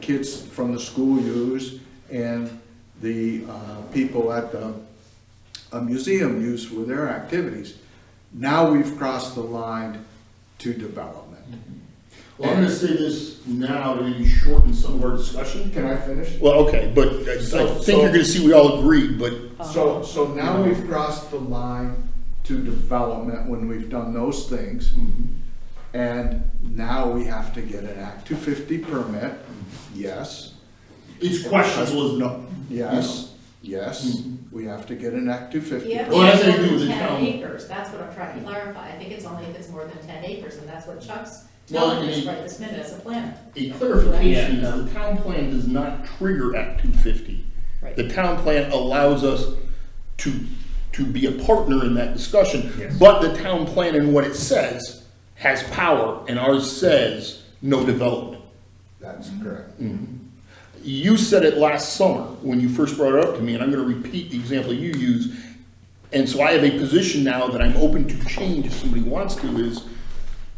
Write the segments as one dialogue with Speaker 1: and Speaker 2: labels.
Speaker 1: kids from the school use and the uh, people at the uh, museum use with their activities. Now we've crossed the line to development.
Speaker 2: Well, I'm gonna say this now to maybe shorten some of our discussion.
Speaker 1: Can I finish?
Speaker 2: Well, okay, but uh, I I think you're gonna see we all agree, but
Speaker 1: So, so now we've crossed the line to development when we've done those things. And now we have to get an Act 250 permit, yes.
Speaker 2: it's questionable as no.
Speaker 1: Yes, yes, we have to get an Act two fifty.
Speaker 3: Yeah,
Speaker 2: Well, that's what
Speaker 3: it's
Speaker 2: they do
Speaker 3: more
Speaker 2: with
Speaker 3: than
Speaker 2: the
Speaker 3: ten
Speaker 2: town.
Speaker 3: acres, that's what I'm trying to clarify, I think it's only if it's more than ten acres, and that's what Chuck's
Speaker 2: Well,
Speaker 3: telling us
Speaker 2: and-
Speaker 3: right this minute as a planner.
Speaker 2: A clarification is the town plan does not trigger Act two fifty.
Speaker 3: Right.
Speaker 2: The town plan allows us to, to be a partner in that discussion, but the town plan and what it says has power, and ours says no development.
Speaker 1: That's correct.
Speaker 2: You said it last summer when you first brought it up to me, and I'm gonna repeat the example you use. And so I have a position now that I'm open to change if somebody wants to is,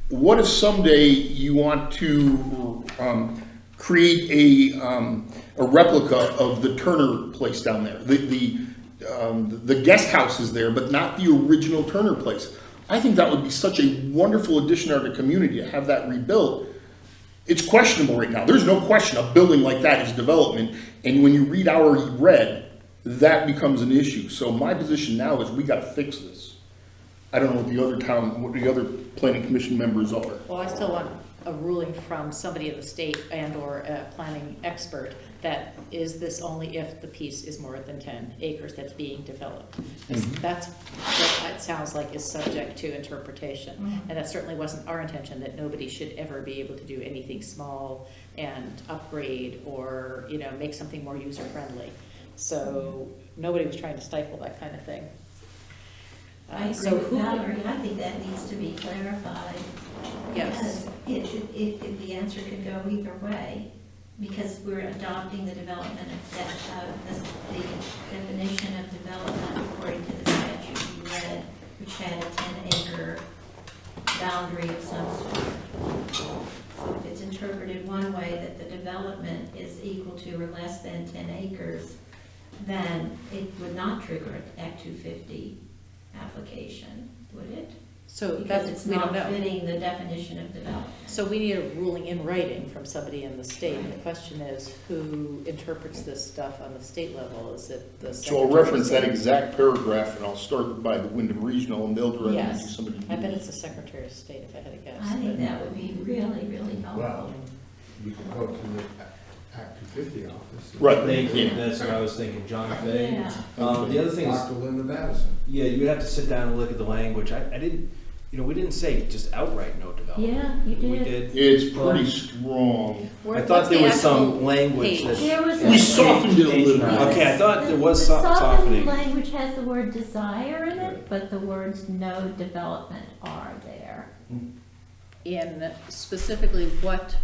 Speaker 2: what if someday you want to, um, create a, um, a replica of the Turner place down there? The, the, um, the guest house is there, but not the original Turner place. I think that would be such a wonderful addition to our community to have that rebuilt it's questionable right now. There's no question a building like that is development, and when you read our red, that becomes an issue. So my position now is we gotta fix this. I don't know what the other town, what the other planning commission members are.
Speaker 4: Well, I still want a ruling from somebody at the state and/or a planning expert that is this only if the piece is more than ten acres that's being developed?
Speaker 2: Mm-hmm.
Speaker 4: That's what it sounds like is subject to interpretation. And that certainly wasn't our intention, that nobody should ever be able to do anything small and upgrade or, you know, make something more user-friendly. So nobody was trying to stifle that kind of thing. Uh,
Speaker 5: I agree
Speaker 4: so
Speaker 5: with
Speaker 4: who-
Speaker 5: Valerie, I think that needs to be clarified.
Speaker 4: Yes.
Speaker 5: Because It, should- it, it, the answer could go either way, because we're adopting the development of that, uh, this- the definition of development according to the statute you read, which had a ten acre boundary of some sort. So If it's interpreted one way, that the development is equal to or less than ten acres, then it would not trigger an Act two fifty application, would it?
Speaker 4: So
Speaker 5: Because
Speaker 4: that's,
Speaker 5: it's
Speaker 4: we don't
Speaker 5: not
Speaker 4: know.
Speaker 5: fitting the definition of development.
Speaker 4: So we need a ruling in writing from somebody in the state. The question is, who interprets this stuff on the state level? Is it the
Speaker 2: So I'll
Speaker 4: secretary?
Speaker 2: reference that exact paragraph, and I'll start by the Wyndham Regional, and they'll direct me to
Speaker 4: Yes.
Speaker 2: somebody.
Speaker 4: I bet it's the secretary of state, if I had to guess.
Speaker 5: I think
Speaker 4: but-
Speaker 5: that would be really, really helpful.
Speaker 1: Well, you can go to the A- Act two fifty office.
Speaker 2: Right.
Speaker 6: Thank you,
Speaker 2: Yeah.
Speaker 6: that's what I was thinking, John Fay.
Speaker 5: Yeah,
Speaker 6: Um, the other thing is,
Speaker 1: Dr. Linda Madison.
Speaker 6: yeah, you would have to sit down and look at the language, I, I didn't, you know, we didn't say just outright no development.
Speaker 5: yeah, you
Speaker 6: We
Speaker 5: did.
Speaker 6: did,
Speaker 2: It's pretty strong.
Speaker 4: Where-
Speaker 6: I
Speaker 4: what's
Speaker 6: thought
Speaker 4: the
Speaker 6: there was some
Speaker 4: actual
Speaker 6: language
Speaker 4: page?
Speaker 6: that,
Speaker 5: There was.
Speaker 2: We
Speaker 5: a-
Speaker 2: softened it a little bit.
Speaker 6: okay, I thought there was
Speaker 5: The
Speaker 6: so-
Speaker 5: softened
Speaker 6: softening.
Speaker 5: language has the word desire in it, but the words no development are there.
Speaker 4: In specifically what,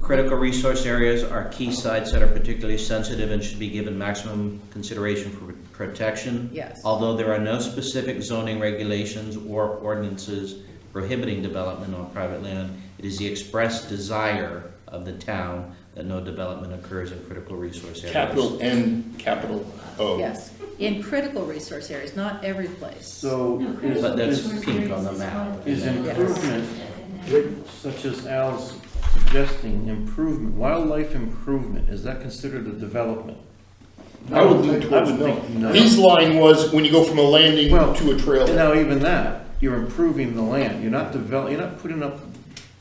Speaker 7: Critical resource areas are key sites that are particularly sensitive and should be given maximum consideration for protection.
Speaker 4: Yes.
Speaker 7: Although there are no specific zoning regulations or ordinances prohibiting development on private land, it is the express desire of the town that no development occurs in critical resource areas.
Speaker 2: Capital N, capital O.
Speaker 4: yes, in critical resource areas, not every place.
Speaker 8: So
Speaker 5: No,
Speaker 8: is,
Speaker 5: critical
Speaker 7: But that's
Speaker 5: resource
Speaker 7: pink on
Speaker 5: areas
Speaker 7: the
Speaker 5: is
Speaker 7: map.
Speaker 5: one of
Speaker 8: is
Speaker 5: them.
Speaker 8: improvement,
Speaker 5: And then-
Speaker 8: with- such as Al's suggesting, improvement, wildlife improvement, is that considered a development?
Speaker 2: I would lean
Speaker 8: I
Speaker 2: towards
Speaker 8: would think
Speaker 2: no.
Speaker 8: no.
Speaker 2: His line was, when you go from a landing
Speaker 8: Well,
Speaker 2: to a trail.
Speaker 8: Now, even that, you're improving the land, you're not develop, you're not putting up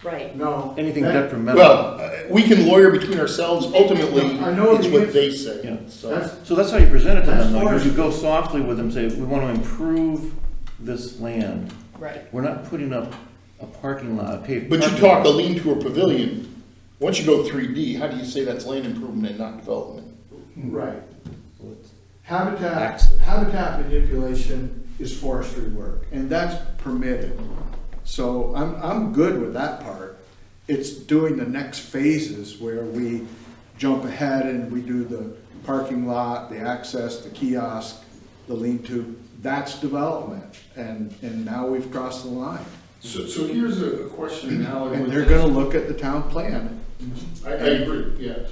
Speaker 4: Right.
Speaker 1: No.
Speaker 8: anything
Speaker 1: that-
Speaker 8: detrimental.
Speaker 2: Well, uh, we can lawyer between ourselves, ultimately,
Speaker 1: I know
Speaker 2: it's
Speaker 1: the
Speaker 2: what they
Speaker 8: Yeah.
Speaker 2: say, so.
Speaker 1: That's,
Speaker 8: So that's how you present it to
Speaker 1: That's
Speaker 8: them, though, is
Speaker 1: forest.
Speaker 8: you go softly with them, say, we want to improve this land.
Speaker 4: Right.
Speaker 8: We're not putting up a parking lot, a paved
Speaker 2: But you
Speaker 8: parking
Speaker 2: talk a
Speaker 8: lot.
Speaker 2: lean to a pavilion, once you go three D, how do you say that's land improvement and not development?
Speaker 1: right. Habitat,
Speaker 8: Access.
Speaker 1: habitat manipulation is forestry work, and that's permitted. So I'm, I'm good with that part. It's doing the next phases where we jump ahead and we do the parking lot, the access, the kiosk, the lean-to. That's development, and, and now we've crossed the line.
Speaker 2: So, so here's a question now.
Speaker 1: And they're gonna look at the town plan.
Speaker 2: I, I agree, yeah.